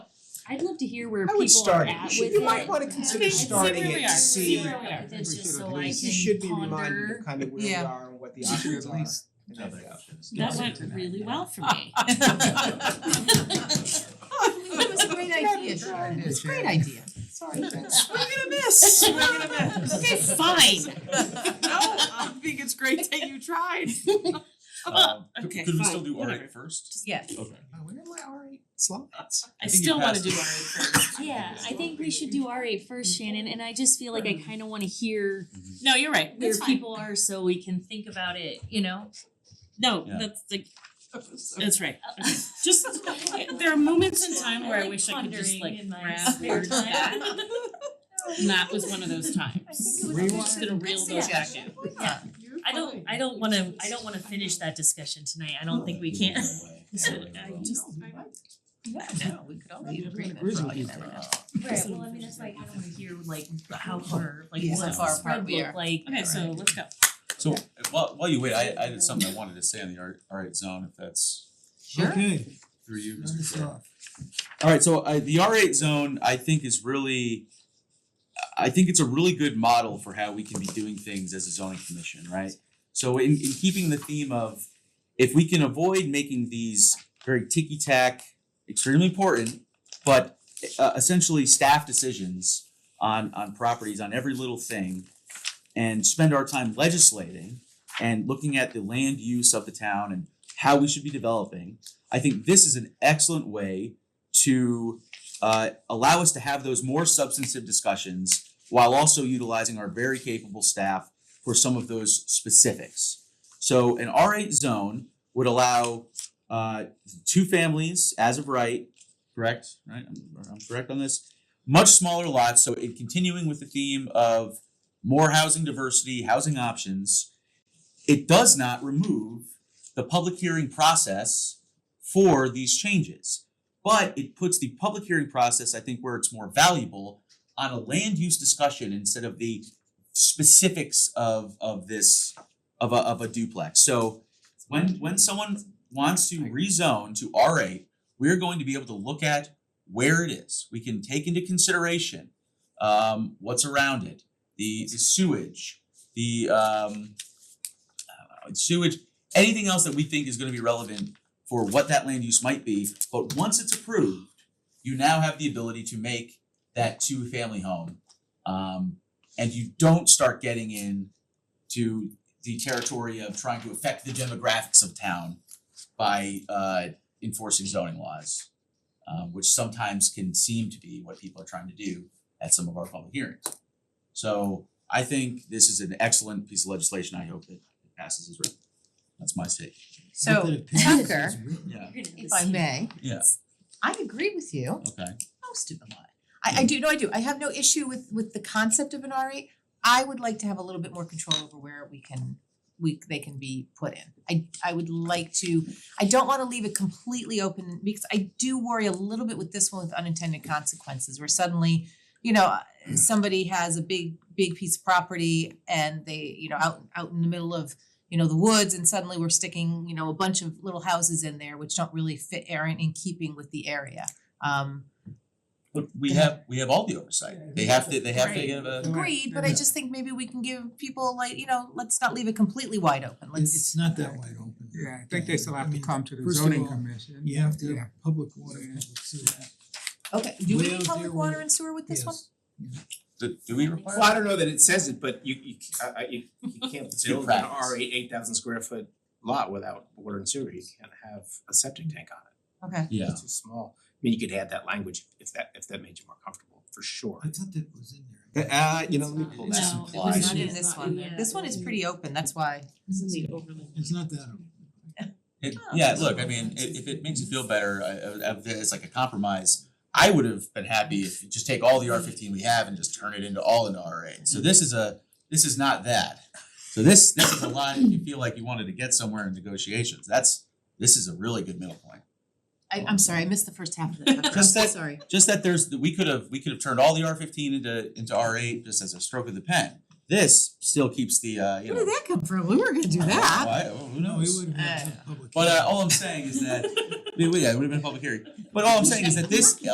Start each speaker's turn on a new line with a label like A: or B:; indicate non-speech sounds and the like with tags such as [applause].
A: I'd love to hear where
B: I
A: people
B: would start
A: are
B: it. You
A: at
B: should-
A: with
B: you
A: it.
B: might wanna consider
A: I mean,
B: starting
A: see
B: it
A: where
B: to
A: we are, see
B: see.
A: where we are with it, just so I
B: You should
A: can
B: be reminded
A: ponder.
B: of kind of where we
C: Yeah.
B: are and what the
C: You should
B: options
C: at
B: are.
C: least-
B: and
D: Other
B: that-
D: options.
A: That went really well
B: [laughs]
A: for me.
C: It was a great idea, Sharon, it was a great idea.
B: Sorry, that's-
E: Swing and a miss. Swing and
B: [laughs]
E: a miss.
A: Okay, fine.
E: No, I think it's great that you tried.
F: [laughs]
D: Um, could-
E: Okay,
D: Could we
E: fine,
D: still do
E: whatever.
D: alright first?
C: Yes.
D: Okay.
B: Oh, where are my R eight slides?
E: I
D: think you
E: still wanna
D: passed
E: do
D: it.
E: our first.
A: [laughs]
E: Mm-hmm.
A: Yeah, I think we should do RA first, Shannon, and I just feel like I kinda wanna hear
D: Mm-hmm.
E: No, you're right,
A: where
E: that's fine.
A: people are so we can think about it, you know? No,
D: Yeah.
A: that's
D: [laughs]
A: like,
E: That's right. Okay. Just, there are moments in time where I wish I could just
A: Pondering
E: like
A: in my
E: grab
A: spare
E: words
A: time.
E: back.
A: [laughs]
E: And that was one of those times.
B: was
E: I'm just
B: interesting.
E: gonna reel those back in.
F: I don't, I don't wanna, I don't wanna finish that discussion tonight, I don't think we can. [laughs] I just-
E: [laughs]
C: No, we could all be in agreement
B: agrees
C: for all
B: with
C: you
B: you,
C: never know.
F: Right, well, I mean, that's like, I don't wanna hear like how far, like
C: Yeah, how
F: what
C: far
F: the spread
C: apart we
F: look
C: are.
F: like.
E: Okay, so let's go.
D: So while while you wait, I I did something I wanted to say on the art alright zone if that's
C: Sure.
B: Okay.
D: through you,
B: Turn
D: Mr.
B: this
D: Chair.
B: off.
D: Alright, so I the R eight zone I think is really I think it's a really good model for how we can be doing things as a zoning commission, right? So in in keeping the theme of if we can avoid making these very ticky tack, extremely important, but uh essentially staff decisions on on properties, on every little thing, and spend our time legislating and looking at the land use of the town and how we should be developing, I think this is an excellent way to uh allow us to have those more substantive discussions while also utilizing our very capable staff for some of those specifics. So an R eight zone would allow uh two families as of right, correct, right? I'm I'm correct on this. Much smaller lots, so in continuing with the theme of more housing diversity, housing options, it does not remove the public hearing process for these changes. But it puts the public hearing process, I think, where it's more valuable on a land use discussion instead of the specifics of of this of a of a duplex. So when when someone wants to rezone to R eight, we're going to be able to look at where it is. We can take into consideration um what's around it, the the sewage, the um uh, sewage, anything else that we think is gonna be relevant for what that land use might be, but once it's approved, you now have the ability to make that two-family home. Um, and you don't start getting in to the territory of trying to affect the demographics of town by uh enforcing zoning laws, um, which sometimes can seem to be what people are trying to do at some of our public hearings. So I think this is an excellent piece of legislation. I hope that it passes as written. That's my take.
B: Not that
C: So
B: it passes,
C: Tucker,
B: it's written.
D: Yeah.
A: you're gonna have
C: if
A: to
C: I
A: see-
C: may,
D: Yeah,
C: I agree with you.
D: okay.
C: most of them are. I I do, no, I do, I have no issue with with the concept of an R eight. I would like to have a little bit more control over where we can, we, they can be put in. I I would like to, I don't wanna leave it completely open because I do worry a little bit with this one with unintended consequences where suddenly, you know, somebody has a big, big piece of property and they, you know, out out in the middle of, you know, the woods and suddenly we're sticking, you know, a bunch of little houses in there which don't really fit, aren't in keeping with the area. Um
D: But we have, we have all the oversight. They have to, they have to
E: Right.
D: give a,
C: Agreed, but I just think maybe we can give people like, you know, let's not leave it completely wide open,
B: It-
C: let's.
B: It's not that wide open.
G: Yeah, I think they still have to
B: mean,
G: come to the
B: first of
G: zoning
B: all,
G: commission.
B: You have to
G: Yeah.
B: have public water,
G: Yeah.
B: public sewer.
C: Okay, do we
B: Well,
C: need
B: there
C: public water
B: were-
C: and sewer with this one?
B: Yes.
D: do do we require?
H: Well, I don't know that it says it, but you you c- I I- you you can't
D: It's good
H: build an
D: practice.
H: R eight eight thousand square foot lot without water and sewer, you can't have a septic tank on it,
C: Okay,
D: Yeah,
H: it's too small. I mean, you could add that language if that if that made you more comfortable, for sure.
B: I thought that was in there.
D: uh, you know,
A: It's not-
D: loophole
A: no,
D: that's
A: it was
D: implied.
C: it's not in
A: It's
C: this
A: not
C: one,
A: in there.
C: this one is pretty open, that's why,
E: This is the overlay.
B: It's not that open.
D: It, yeah, look, I mean, i- if it makes you feel better, I I I- it's like a compromise. I would have been happy if you just take all the R fifteen we have and just turn it into all into R eight. So this is a, this is not that. So this, this is a line, if you feel like you wanted to get somewhere in negotiations, that's, this is a really good middle point.
C: I I'm sorry, I missed the first half of that, I'm
D: Just
C: so
D: that-
C: sorry.
D: just that there's we could have we could have turned all the R fifteen into into R eight just as a stroke of the pen. This still keeps the uh you know. Oh,
C: Where did that come from, we weren't gonna do
D: I don't know
C: that.
D: why, who
B: No, we
D: knows?
B: would have had
C: Uh,
B: some public.
D: But uh
B: hearing.
D: [laughs] all I'm saying is that yeah, it would have been a public hearing. But all I'm saying is that this